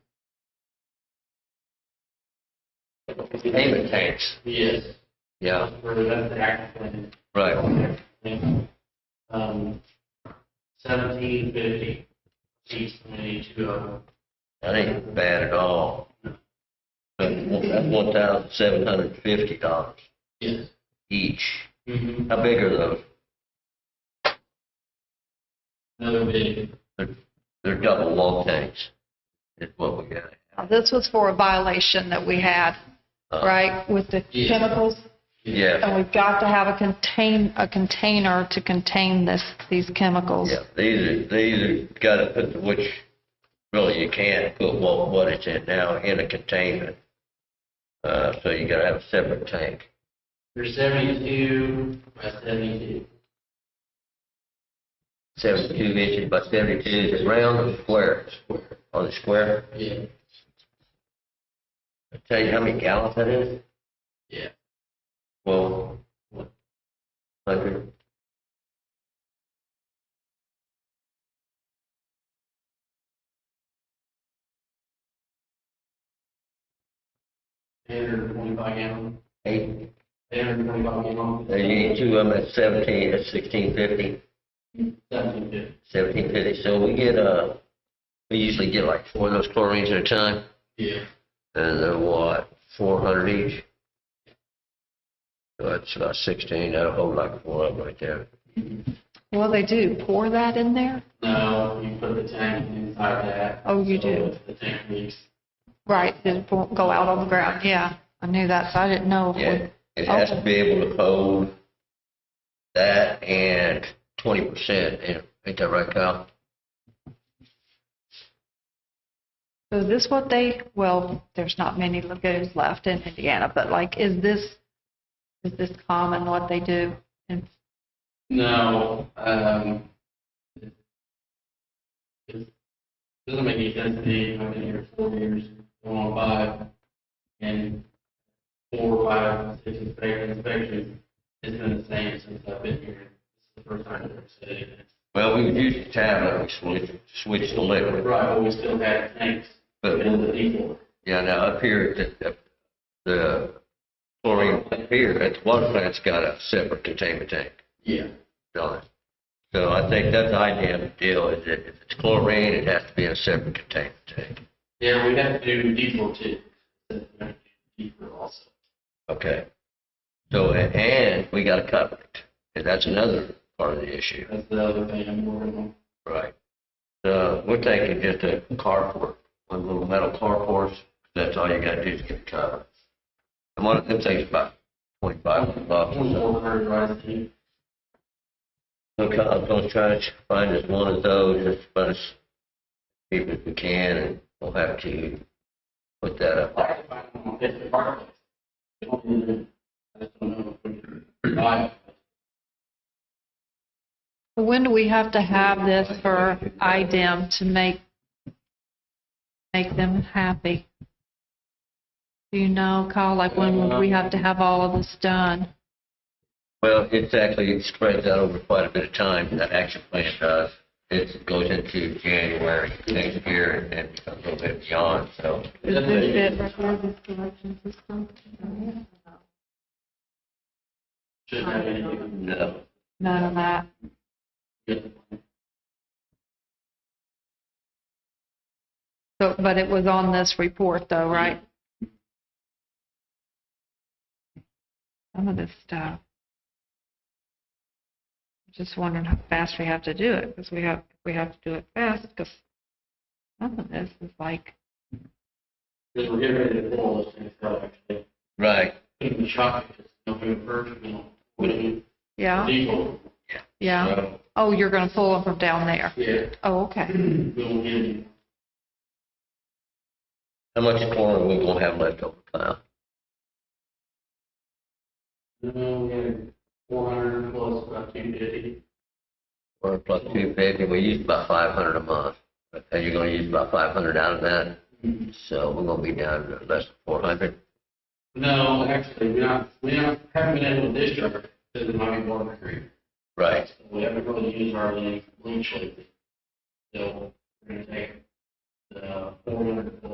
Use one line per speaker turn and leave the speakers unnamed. containment tanks,
Yes.
yeah,
Where that's the act plan.
right.
Um, seventeen fifty, each committee two of them.
That ain't bad at all. But That's one thousand seven hundred and fifty dollars
Yes.
each.
Mhm.
How big are those?
Another bid,
They're double wall tanks, is what we got.
Now, This was for a violation that we had,
Uh,
right, with the
Yeah.
chemicals?
Yeah,
And we've got to have a contain, a container to contain this, these chemicals.
yeah, these are, these are, gotta put, the which, really, you can't put what, what it's in now in a containment. Uh, so you gotta have a separate tank.
they're seventy-two by seventy-two.
Seventy-two inches by seventy-two, is it round or square? On the square?
Yeah,
I Tell you how many gallons that is?
yeah.
Well, hundred.
Eight hundred and twenty-five gallon,
Eight, Uh,
eight hundred and twenty-five gallon.
you need two of them at seventeen, at sixteen fifty,
Seventeen fifty,
seventeen fifty, so we get, uh, we usually get like four of those chlorines at a time,
yeah.
and they're what, four hundred each? So that's about sixteen, that'll hold like four of them right there.
Well, they do pour that in there?
No, you put the tank inside that.
Oh, you
So
do.
if The tank leaks.
Right, it won't go out on the ground, yeah. I knew that, so I didn't know.
Yeah, it has to be able to hold that and twenty percent, ain't that right, Kyle?
So Is this what they, well, there's not many lagoons left in Indiana, but like, is this, is this common what they do? And
No, um. it Doesn't make any sense to me, I've been here four years, going on five, and four, or five, six inspections, inspections, it's been the same since I've been here. It's the first time I've ever said it.
Well, we would use the tablet, we switched, switched the liquid.
Right, but we still had tanks,
But,
but it was a default.
yeah, now up here, at the, the chlorine plant here, at the water plant's got a separate containment tank
Yeah.
on it. So I think that's the idea of the deal, is that if it's chlorine, it has to be in a separate containment tank.
Yeah, we have to do default too. Default also.
Okay. So, a- and we gotta cover it, and that's another part of the issue.
That's the other thing I'm working on.
Right. So we're taking just a carport, one little metal carport, that's all you gotta do is get it covered. And one of them takes about twenty-five hundred bucks or so.
Four hundred rise to
I'm gonna- I'm gonna try to find us one of those, as much as people as we can, and we'll have to put that up.
when do we have to have this for IDEM to make, make them happy? Do you know, Kyle, like, when would we have to have all of this done?
Well, it's actually, it spreads out over quite a bit of time, that action plan does. It goes into January next year and then becomes a little bit beyond, so.
Is this it right here, this collection system?
No.
None of that. So, but it was on this report though, right? Some of this stuff. Just wondering how fast we have to do it, because we have, we have to do it fast, because some of this is like,
Right,
yeah, yeah.
Well,
Oh, you're going to pull them from down there.
Yeah.
Oh, okay.
How much corn are we gonna have left over, Kyle?
No, we had four hundred plus about two fifty.
Or plus two fifty, we used about five hundred a month. And you're gonna use about five hundred out of that, so we're gonna be down to less than four hundred.
No, actually, we're not, we don't, haven't been able to discharge because of my water creek.
Right.
We haven't really used our lean, lean shape. So we're gonna take the four hundred